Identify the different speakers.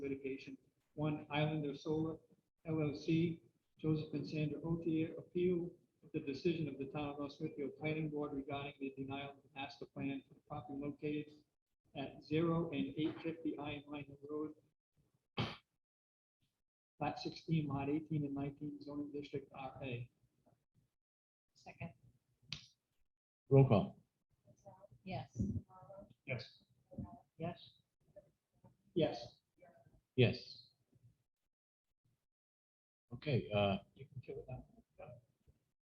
Speaker 1: Association, One Islander Solar LLC, Joseph and Sandra Otier, appeal of the decision of the Town of North Smithfield Planning Board regarding the denial of the master plan for the property located at zero and eight fifty Iron Mine Road, Lot sixteen, lot eighteen and nineteen, zoning district RA.
Speaker 2: Second.
Speaker 3: Roll call.
Speaker 2: Yes.
Speaker 1: Yes.
Speaker 2: Yes.
Speaker 1: Yes.
Speaker 3: Yes. Okay, uh,